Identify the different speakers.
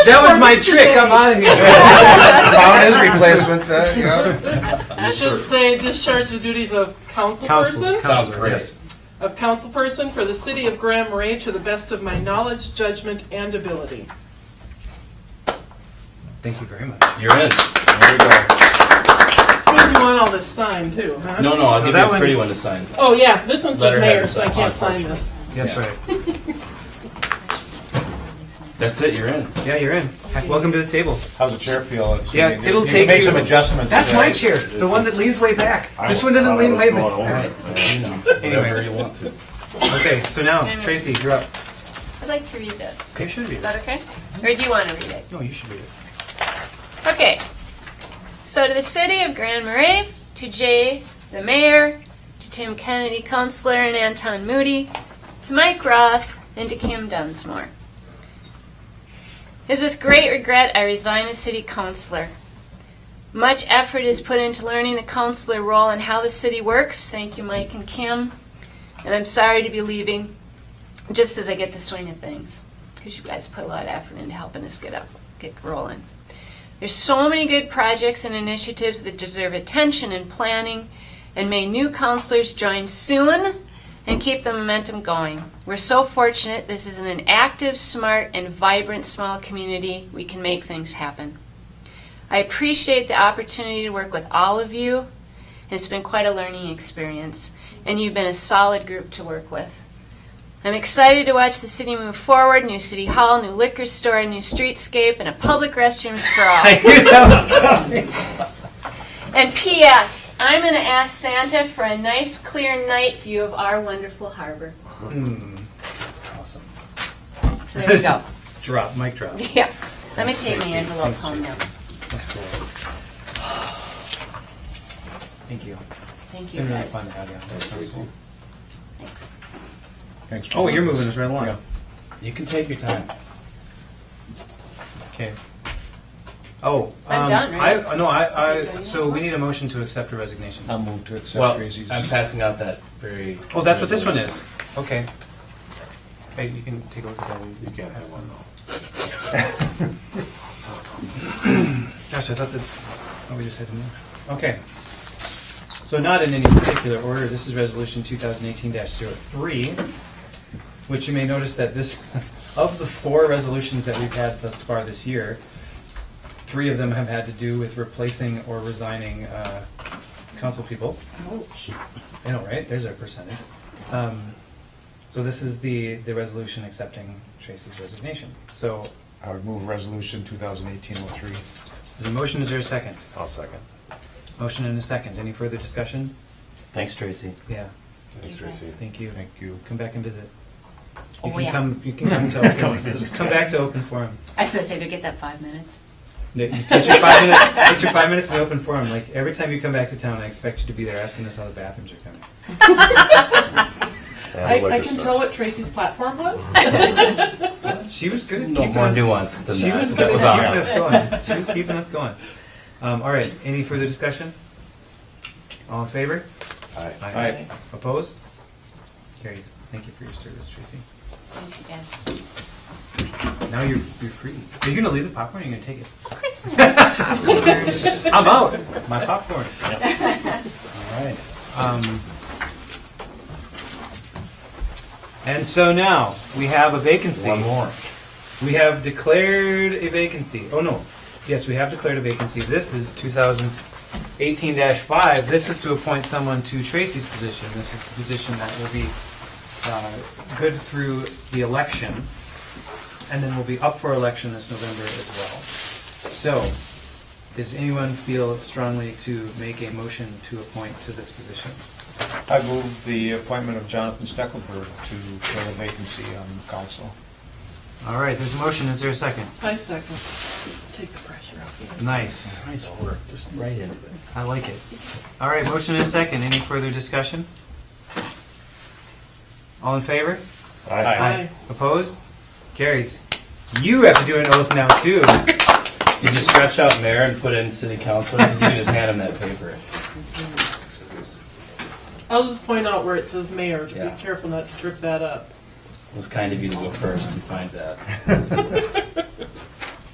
Speaker 1: That was my trick. I'm out of here.
Speaker 2: Found his replacement, uh, you know.
Speaker 3: I should say discharge the duties of council
Speaker 1: Council,
Speaker 3: person.
Speaker 1: council,
Speaker 4: great.
Speaker 3: Of council person for the city of Grand Marais to the best of my knowledge, judgment, and ability.
Speaker 1: Thank you very much.
Speaker 4: You're in.
Speaker 2: There you go.
Speaker 3: Suppose you want all this signed too, huh?
Speaker 4: No, no, I'll give
Speaker 1: that
Speaker 4: you a
Speaker 1: one-
Speaker 4: pretty one to sign.
Speaker 3: Oh, yeah, this one says
Speaker 4: Letterhead
Speaker 3: mayor,
Speaker 4: is
Speaker 3: so I can't sign
Speaker 4: unfortunate.
Speaker 3: this.
Speaker 1: That's
Speaker 4: Yeah.
Speaker 1: right.
Speaker 4: That's it, you're in.
Speaker 1: Yeah, you're in. Welcome to the table.
Speaker 2: How's the chair feel? It's-
Speaker 1: Yeah,
Speaker 2: you- you-
Speaker 1: it'll
Speaker 2: you
Speaker 1: take
Speaker 2: Make
Speaker 1: you-
Speaker 2: some adjustments.
Speaker 1: That's
Speaker 2: today.
Speaker 1: my chair, the one that leans way back. This one doesn't lean way back. All right.
Speaker 4: Uh, Whatever you want to.
Speaker 1: Okay, so now, Tracy, you're up.
Speaker 5: I'd like to read this.
Speaker 1: You should read
Speaker 5: Is
Speaker 1: it.
Speaker 5: that okay? Or do you want to read it?
Speaker 1: No, you should read it.
Speaker 5: Okay. So to the city of Grand Marais, to Jay, the mayor, to Tim Kennedy, councilor, and Anton Moody, to Mike Roth, and to Kim Dunsmore. It is with great regret I resign as city councilor. Much effort is put into learning the councilor role and how the city works. Thank you, Mike and Kim. And I'm sorry to be leaving, just as I get the swing of things, because you guys put a lot of effort into helping us get up, get rolling. There's so many good projects and initiatives that deserve attention and planning, and may new counselors join soon and keep the momentum going. We're so fortunate this is an active, smart, and vibrant small community. We can make things happen. I appreciate the opportunity to work with all of you. It's been quite a learning experience, and you've been a solid group to work with. I'm excited to watch the city move forward new city hall, new liquor store, new streetscape, and a public restrooms for all.
Speaker 1: I knew that was
Speaker 5: And P.S. I'm going to ask Santa for a nice, clear night view of our wonderful harbor.
Speaker 4: Awesome.
Speaker 5: So there you go.
Speaker 1: Drop, mic drop.
Speaker 5: yeah. Let me take my envelope home now.
Speaker 1: That's cool. Thank you.
Speaker 5: Thank
Speaker 1: It's
Speaker 5: you
Speaker 1: been really
Speaker 5: guys.
Speaker 1: fun to have you. on. That's really cool.
Speaker 5: Thanks.
Speaker 2: Thanks for
Speaker 1: Oh, you're
Speaker 2: doing
Speaker 1: moving
Speaker 2: this.
Speaker 1: us right along.
Speaker 2: Yeah.
Speaker 4: You can take your time.
Speaker 1: Okay. Oh.
Speaker 5: I'm
Speaker 1: um,
Speaker 5: done, right?
Speaker 1: I, no, I,
Speaker 5: Okay,
Speaker 1: I,
Speaker 5: do
Speaker 1: so we need a motion to accept her resignation.
Speaker 2: I'll move to accept
Speaker 4: Well,
Speaker 2: Tracy's.
Speaker 4: I'm passing out that very.
Speaker 1: Oh, that's what this one is. Okay. Hey, you can take a look at that.
Speaker 4: You can't have one though.
Speaker 1: Gosh, I thought that, oh, we just had to move. Okay. So not in any particular order, this is resolution 2018-03, which you may notice that this, of the four resolutions that we've had thus far this year, three of them have had to do with replacing or resigning uh, council people. I know, right? There's our percentage. Um, So this is the, the resolution accepting Tracy's resignation. So
Speaker 2: I would move resolution 2018-03.
Speaker 1: the motion, is there a second?
Speaker 4: I'll second.
Speaker 1: Motion and a second. Any further discussion?
Speaker 4: Thanks, Tracy.
Speaker 1: Yeah,
Speaker 4: Thanks,
Speaker 5: You guys.
Speaker 4: Tracy.
Speaker 1: thank you.
Speaker 2: Thank you.
Speaker 1: Come back and visit. You
Speaker 5: Oh,
Speaker 1: can
Speaker 5: yeah.
Speaker 1: come. You can come to open, come back to open forum.
Speaker 5: I was going to say, to get that five minutes.
Speaker 1: No, you Take your five minutes. Take your five minutes in open forum. Like every time you come back to town, I expect you to be there asking us how the bathrooms are coming.
Speaker 3: I, I can tell what Tracy's platform was.
Speaker 1: She was good at
Speaker 4: No
Speaker 1: keeping
Speaker 4: more
Speaker 1: us.
Speaker 4: nuance than
Speaker 1: She was
Speaker 4: that.
Speaker 1: good at
Speaker 4: That was
Speaker 1: keeping
Speaker 4: awesome.
Speaker 1: us going. She was keeping us going. Um, all right. Any further discussion? All in favor?
Speaker 4: Aye.
Speaker 2: Aye.
Speaker 1: Opposed? Carries. Thank you for your service, Tracy.
Speaker 5: Thank you guys.
Speaker 1: Now you're you're free. Are you gonna leave the popcorn? Or are you gonna take it?
Speaker 5: Of course not.
Speaker 1: I'm out. My popcorn.
Speaker 2: All right.
Speaker 1: Um, and so now we have a vacancy.
Speaker 4: One more.
Speaker 1: We have declared a vacancy. Oh no, yes, we have declared a vacancy. This is 2018-5. This is to appoint someone to Tracy's position. This is the position that will be uh, good through the election, and then will be up for election this November as well. So, does anyone feel strongly to make a motion to appoint to this position?
Speaker 2: I move the appointment of Jonathan Steckelberg to fill a vacancy on the council.
Speaker 1: All right, there's a motion. Is there a second?
Speaker 3: I second. Take the pressure off you.
Speaker 1: Nice.
Speaker 4: Nice work, just right into it.
Speaker 1: I like it. All right, motion and a second. Any further discussion? All in favor?
Speaker 3: Aye.
Speaker 1: Opposed? Carries. You have to do an oath now, too.
Speaker 4: You just stretch out mayor and put in city council, because you can just hand him that paper.
Speaker 3: I'll just point out where it says mayor, to
Speaker 4: Yeah.
Speaker 3: be careful not to trip that up.
Speaker 4: It was kind of you to go first and find that.